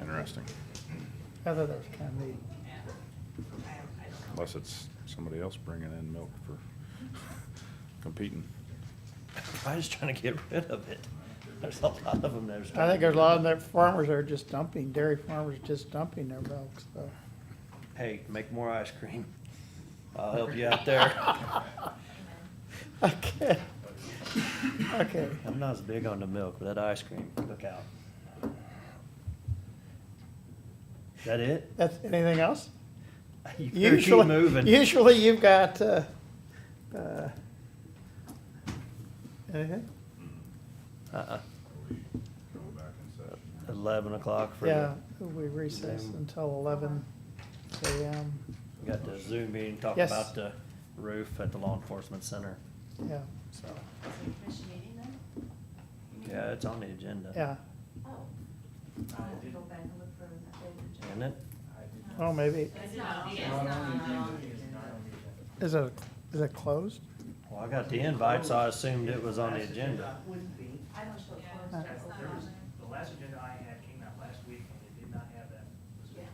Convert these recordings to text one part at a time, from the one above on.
interesting, I thought that was kind of neat. unless it's somebody else bringing in milk for competing. I'm just trying to get rid of it. There's a lot of them there's. I think there's a lot of their farmers that are just dumping, dairy farmers just dumping their milk, so. Hey, make more ice cream. I'll help you out there. Okay. Okay, I'm not as big on the milk, but that ice cream, look out. Is that it? that's, anything else? You better keep Usually, moving. usually you've got, uh, uh, anything? Uh-uh. Go back in session. Eleven o'clock for Yeah, the, we recess Zoom. until eleven AM, we got the Zoom meeting, talking Yes. about the roof at the law enforcement center, yeah, so. Is it a commission meeting then? Yeah, it's on the agenda. yeah. Oh. I'll have to go back and look for that later. Isn't it? Oh, maybe, It's not. It's is it, is it closed? Well, I got the invite, so I assumed it was on the agenda. Wouldn't be. I don't show it There closed. it's was, the last agenda I had came out last week and it did not have that. listed.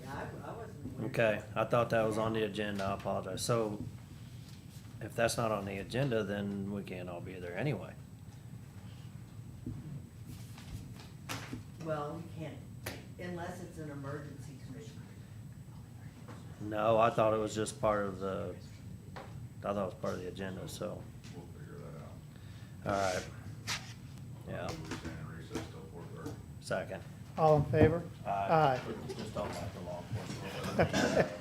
Yeah, I, I wasn't aware. Okay, I thought that was on the agenda, I apologize. So if that's not on the agenda, then we can't all be there anyway. Well, you can't, unless it's an emergency commission. No, I thought it was just part of the, I thought it was part of the agenda, so, We'll figure that out. all right. Yeah, We're staying in recess till four thirty. second. All in favor? Aye. Aye. Just don't like the law enforcement.